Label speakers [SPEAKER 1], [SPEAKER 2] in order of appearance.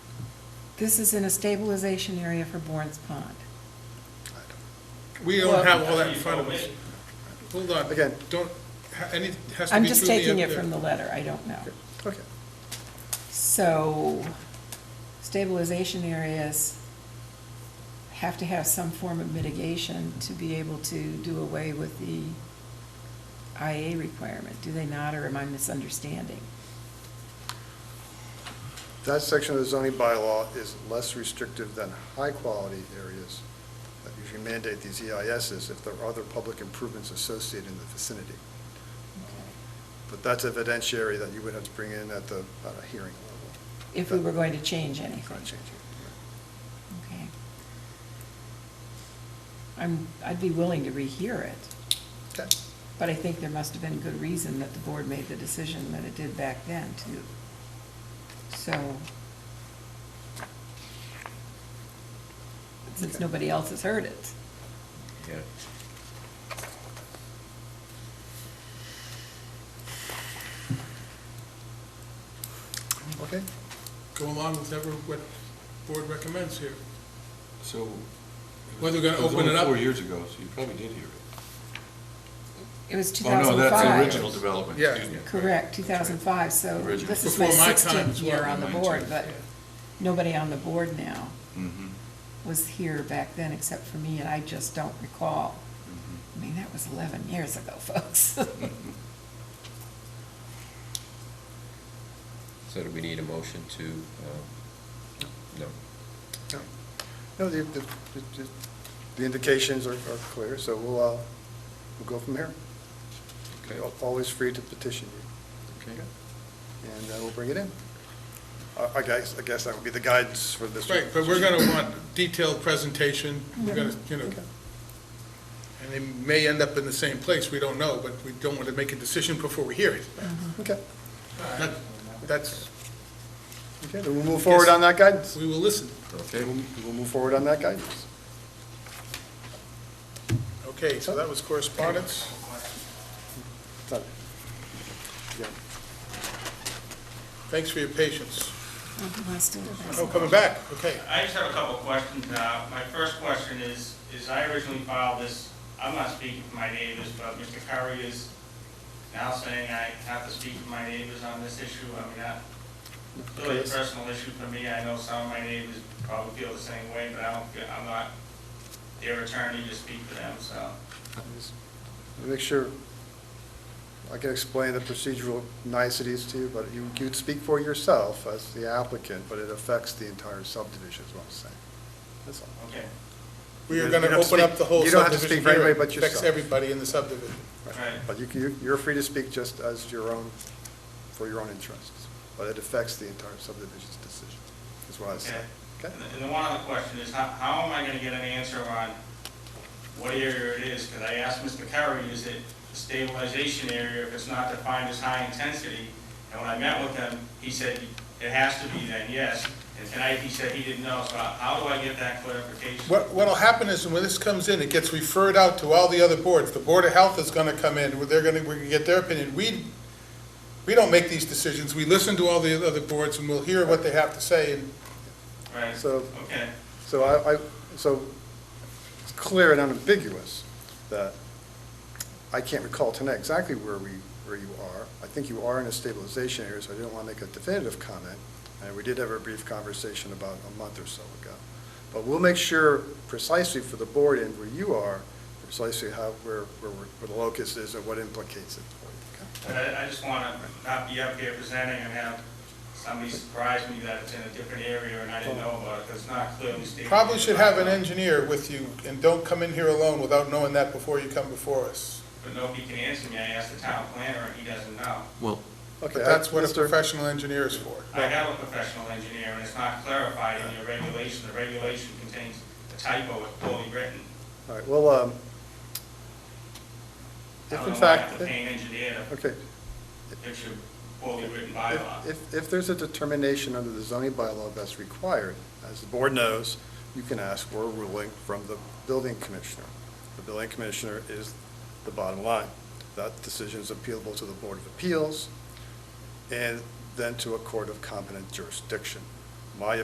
[SPEAKER 1] This is in a stabilization area for Bourne's Pond.
[SPEAKER 2] We
[SPEAKER 1] Well-
[SPEAKER 2] don't have all that in front of us. Hold on.
[SPEAKER 3] Again.
[SPEAKER 2] Don't, ha- any, has to
[SPEAKER 1] I'm
[SPEAKER 2] be
[SPEAKER 1] just
[SPEAKER 2] through the
[SPEAKER 1] taking
[SPEAKER 2] end
[SPEAKER 1] it
[SPEAKER 2] there.
[SPEAKER 1] from the letter, I don't know.
[SPEAKER 3] Okay.
[SPEAKER 1] So stabilization areas have to have some form of mitigation to be able to do away with the IA requirement, do they not, or am I misunderstanding?
[SPEAKER 3] That section of the zoning bylaw is less restrictive than high-quality areas that usually mandate these EISs if there are other public improvements associated in the vicinity. But that's evidentiary that you would have to bring in at the, at a hearing level.
[SPEAKER 1] If we were going to change anything.
[SPEAKER 3] Kind of changing.
[SPEAKER 1] Okay. I'm, I'd be willing to rehear it,
[SPEAKER 3] Okay.
[SPEAKER 1] but I think there must have been good reason that the board made the decision that it did back then, too. So, since
[SPEAKER 3] Okay.
[SPEAKER 1] nobody else has heard it.
[SPEAKER 4] Yeah.
[SPEAKER 3] Okay.
[SPEAKER 2] Go along with whatever, what board recommends here.
[SPEAKER 4] So.
[SPEAKER 2] Whether we're gonna open it up-
[SPEAKER 4] It was only four years ago, so you probably did hear it.
[SPEAKER 1] It was two
[SPEAKER 4] Oh, no,
[SPEAKER 1] thousand
[SPEAKER 4] that's the
[SPEAKER 1] five.
[SPEAKER 4] original development,
[SPEAKER 2] Yeah.
[SPEAKER 4] excuse me.
[SPEAKER 1] Correct, two thousand five, so
[SPEAKER 4] Original.
[SPEAKER 1] this is my
[SPEAKER 2] Before my time
[SPEAKER 1] sixteenth
[SPEAKER 2] as well,
[SPEAKER 1] year on the
[SPEAKER 4] mine
[SPEAKER 1] board,
[SPEAKER 4] too,
[SPEAKER 1] but
[SPEAKER 4] yeah.
[SPEAKER 1] nobody on the board now
[SPEAKER 4] Mm-hmm.
[SPEAKER 1] was here back then except for me, and I just don't recall. I mean, that was eleven years ago, folks.
[SPEAKER 4] mm-hmm.
[SPEAKER 5] So do we need a motion to, um, no?
[SPEAKER 3] No. No, the, the, the- the indications are, are clear, so we'll, uh, we'll go from there.
[SPEAKER 4] Okay.
[SPEAKER 3] You're Always free to petition you,
[SPEAKER 4] Okay.
[SPEAKER 3] and uh, we'll bring it in. I, I guess, I guess that would be the guidance for this.
[SPEAKER 2] Right, but we're gonna want detailed presentation, we're gonna, you know,
[SPEAKER 3] Okay.
[SPEAKER 2] and it may end up in the same place, we don't know, but we don't want to make a decision before we hear it.
[SPEAKER 3] Okay,
[SPEAKER 2] That- That's,
[SPEAKER 3] okay, then we'll move forward on that guidance.
[SPEAKER 2] we will listen.
[SPEAKER 4] Okay,
[SPEAKER 3] We'll we'll move forward on that guidance.
[SPEAKER 2] Okay, so that was correspondence.
[SPEAKER 3] Done. Yeah.
[SPEAKER 2] Thanks for your patience. Oh,
[SPEAKER 1] Oh,
[SPEAKER 2] coming back, okay.
[SPEAKER 6] I just have a couple of questions. Uh, My first question is, is I originally filed this, I'm not speaking for my neighbors, but Mr. Curry is now saying I have to speak for my neighbors on this issue. I mean, that's really a personal issue for me. I know some of my neighbors probably feel the same way, but I don't, feel- I'm not their attorney to speak for them, so.
[SPEAKER 3] Let me Make sure, I can explain the procedural niceties to you, but you, you'd speak for yourself as the applicant, but it affects the entire subdivision, is what I'm saying. That's all.
[SPEAKER 6] Okay,
[SPEAKER 2] We are
[SPEAKER 3] You
[SPEAKER 2] gonna
[SPEAKER 3] don't have to
[SPEAKER 2] open up
[SPEAKER 3] speak-
[SPEAKER 2] the whole
[SPEAKER 3] you don't have to speak
[SPEAKER 2] subdivision
[SPEAKER 3] for anybody
[SPEAKER 2] hearing.
[SPEAKER 3] but
[SPEAKER 2] Affects
[SPEAKER 3] yourself.
[SPEAKER 2] everybody in the subdivision.
[SPEAKER 6] right.
[SPEAKER 3] But you, you, you're free to speak just as your own, for your own interests, but it affects the entire subdivision's decision, is what I was
[SPEAKER 6] Okay.
[SPEAKER 3] saying.
[SPEAKER 6] And
[SPEAKER 3] Okay?
[SPEAKER 6] the- and the one other question is, how, how am I gonna get an answer on what area it is? Because I asked Mr. Curry, is it a stabilization area if it's not defined as high intensity? And when I met with him, he said, it has to be then, yes. And tonight, he said he didn't know, so how how do I get that clarification?
[SPEAKER 2] What, what'll happen is when this comes in, it gets referred out to all the other boards. The Board of Health is gonna come in, where they're gonna, we're gonna get their opinion. We, we don't make these decisions. We listen to all the other boards and we'll hear what they have to say and
[SPEAKER 6] Right,
[SPEAKER 3] So-
[SPEAKER 6] okay.
[SPEAKER 3] So I, I, so it's clear and unambiguous that I can't recall tonight exactly where we, where you are. I think you are in a stabilization area, so I didn't want to make a definitive comment. And we did have a brief conversation about a month or so ago. But we'll make sure precisely for the board and where you are, precisely how, where, where, we're- where the locus is and what implicates it for you. okay?
[SPEAKER 6] But I, I just wanna not be up here presenting and have somebody surprise me that it's in a different area and I didn't know about it, because it's not clearly stated.
[SPEAKER 2] probably should have an engineer with you and don't come in here alone without knowing that before you come before us.
[SPEAKER 6] But nobody can answer me, I asked the town planner, and he doesn't know.
[SPEAKER 4] well,
[SPEAKER 3] Okay,
[SPEAKER 2] But that's what a
[SPEAKER 3] Mr.
[SPEAKER 2] professional engineer is for.
[SPEAKER 6] I have a professional engineer, and it's not clarified in your regulation, the regulation contains a typo, it's poorly written.
[SPEAKER 3] All right, well, um,
[SPEAKER 6] I
[SPEAKER 3] if
[SPEAKER 6] don't
[SPEAKER 3] in
[SPEAKER 6] know why I have
[SPEAKER 3] fact,
[SPEAKER 6] to pay an engineer to
[SPEAKER 3] okay.
[SPEAKER 6] fix your poorly written bylaw.
[SPEAKER 3] If, if- if there's a determination under the zoning bylaw that's required, as the board knows, you can ask for a ruling from the building commissioner. The building commissioner is the bottom line. That decision is appealable to the Board of Appeals and then to a court of competent jurisdiction. My